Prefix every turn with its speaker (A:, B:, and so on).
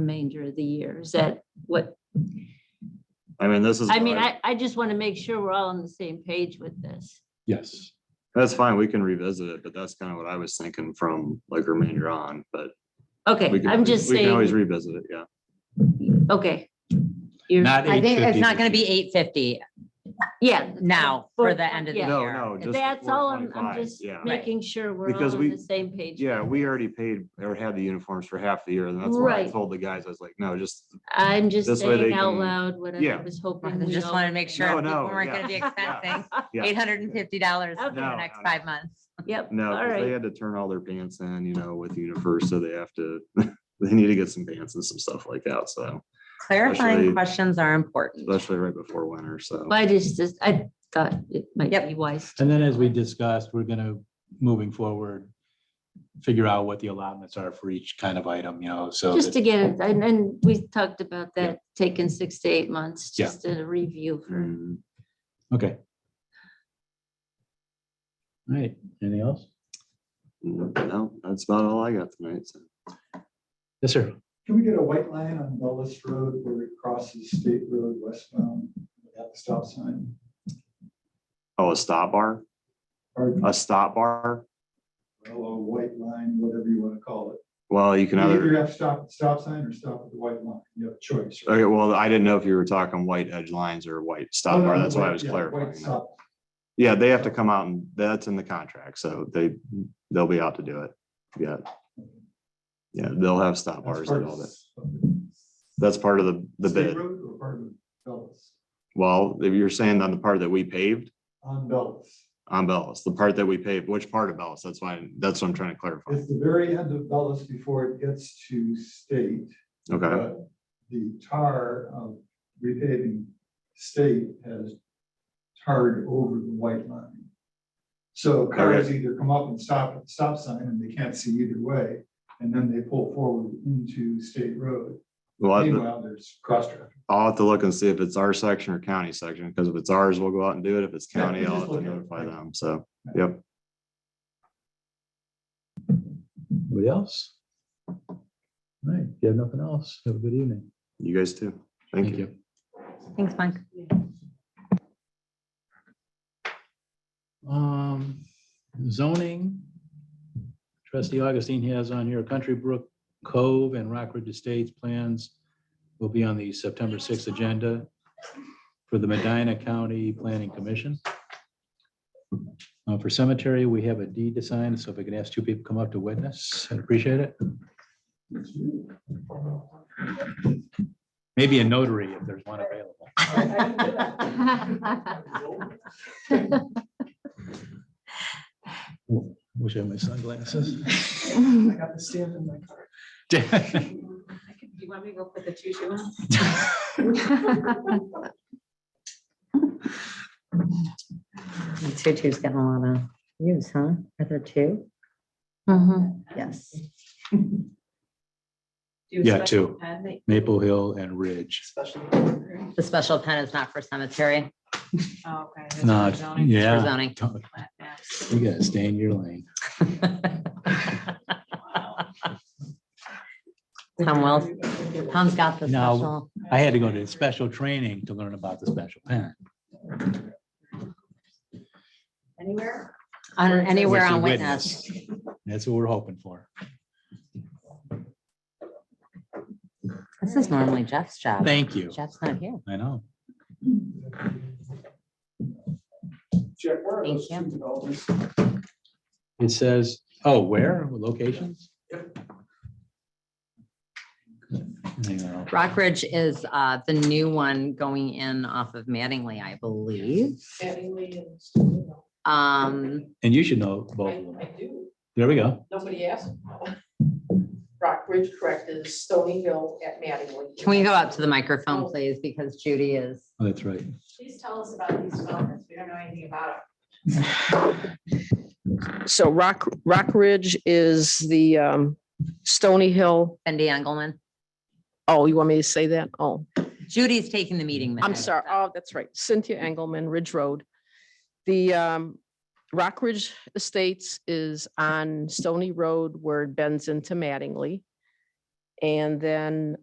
A: remainder of the year? Is that what,
B: I mean, this is.
A: I mean,
B: what
A: I, I just want to make sure we're all on the same page with this.
C: Yes,
B: That's fine, we can revisit it, but that's kind of what I was thinking from like remainder on, but. we
A: Okay,
B: can-
A: I'm just
B: We can always
A: saying,
B: revisit it, yeah.
A: okay. You're,
C: not
D: I think it's
C: 850.
D: not gonna be eight fifty
A: yeah,
D: now for the end of the
A: Yeah.
D: year.
B: No, no, just.
A: that's all I'm, I'm
B: 425,
A: just
B: Yeah,
A: making sure we're all
B: Because
A: on
B: we-
A: the same page.
B: yeah, we already paid or had the uniforms for half the year, and that's why I
A: Right.
B: told the guys, I was like, no, just,
A: I'm just
B: This way they
A: saying out
B: can-
A: loud what I
B: Yeah.
A: was hoping.
D: I
A: we
D: Just
A: all-
D: wanted to make sure
B: No,
D: people
B: no,
D: weren't gonna be expensing
B: yeah,
D: eight hundred and fifty dollars for
A: Okay.
D: the
B: No,
D: next
B: no, no.
D: five months.
A: Yep,
B: no,
A: all
B: 'cause they
A: right,
B: had to turn all their pants in, you know, with UniFirst, so they have to, they need to get some pants and some stuff like that, so, Especially-
D: Clarifying questions are important.
B: especially right before winter, so.
A: but I just, just- I thought it might
D: Yep.
A: be wise. to-
C: And then as we discussed, we're gonna, moving forward, figure out what the allotments are for each kind of item, you know, so.
A: Just
C: that-
A: to get it, and, and we talked about
C: Yeah.
A: that, taking six to eight months,
C: Yeah.
A: just a review for
B: Mm.
C: Okay. All right, anything else?
B: No, that's about all I got tonight, so.
C: Yes, sir.
E: Can we get a white line on Dulles Road where it crosses State Road westbound at the stop sign?
B: Oh, a stop bar,
E: Or
B: a stop bar?
E: a white line, whatever you want to call it.
B: Well, you can
E: You
B: either,
E: Either have to stop at the stop sign or stop at the white line. You have a choice. right?
B: okay, well, I didn't know if you were talking white edge lines or white
E: Oh,
B: stop
E: no,
B: bar,
E: no,
B: that's why I
E: white-
B: was
E: yeah,
B: clarifying.
E: white
B: that.
E: stop.
B: Yeah, they have to come out and that's in the contract, so they, they'll be out to do it, yeah. Yeah, they'll have stop
E: That's
B: bars
E: part
B: and
E: of
B: all that.
E: s-
B: That's part of the, the
E: State
B: bid.
E: Road or part of Dulles?
B: Well, if you're saying on the part that we paved
E: On Dulles.
B: on Bellis, the part that we paved, which part of Bellis? That's why, that's what I'm trying to clarify.
E: It's the very end of Dulles before it gets to State.
B: Okay,
E: But The tar of repaving state has tarred over the white line. So cars either come up and stop at the stop sign and they can't see either way, and then they pull forward into state road.
B: well, the-
E: Meanwhile, there's cross traffic.
B: I'll have to look and see if it's our section or county section, because if it's ours, we'll go out and do it. If it's
E: Yeah,
B: county,
E: we'll
B: I'll have
E: just
B: to
E: look at it,
B: notify
E: right.
B: them. So, yep.
C: Anybody else? All right, if you have nothing else, have a good evening.
B: You guys too. Thank you.
D: Thanks, Mike.
C: Um, zoning. Trustee Augustine has on here Country Brook Cove and Rockridge Estates plans will be on the September sixth agenda for the Medina County Planning Commission. Uh, for cemetery, we have a deed to sign, so if we can ask two people to come up to witness, I'd appreciate it. Maybe a notary if there's one available. Wish I had my sunglasses.
E: I got the stand in my car.
F: You want me to go put the choo-choo on?
D: Tutu's getting a lot of use, huh? Are there two?
A: Mhm.
D: Yes.
F: Do a
C: Yeah,
F: special
C: two.
F: pen that-
C: Maple Hill and Ridge.
D: The special pen is not for cemetery,
F: Oh, Okay. that's
C: Not,
F: for zoning.
D: for
C: yeah.
D: zoning.
C: Don't-
F: Flat maps.
C: You gotta stay in your lane.
D: Tom Wells, Tom's got the
C: No.
D: special.
C: I had to go to special training to learn about the special pen.
F: Anywhere?
D: On anywhere
C: With the
D: on witness.
C: That's what we're hoping for.
D: This is normally Jeff's job.
C: Thank you.
D: Jeff's not here.
C: I know.
E: Jeff, where are
D: Thank
E: those
D: you.
E: two developments?
C: It says, oh, where? Locations? Hang on.
D: Rockridge is uh, the new one going in off of Mattingly, I believe.
F: Mattingly and-
D: Um,
C: And you should know both of
F: I
C: them.
F: I do,
C: There we go.
F: nobody asked. Rockbridge, correct, is Stony Hill at Mattingly.
D: Can we go up to the microphone, please, because Judy is.
C: Oh, That's right.
F: Please tell us about these developments, we don't know anything about them.
G: So Rock, Rock Ridge is the um, Stony Hill.
D: Cindy Engelman.
G: Oh, you want me to say that? Oh,
D: Judy's taking the meeting minutes.
G: I'm sorry.
D: so-
G: Oh, that's right. Cynthia Engelman, Ridge Road. The um, Rock Ridge Estates is on Stony Road where it bends into Mattingly. And then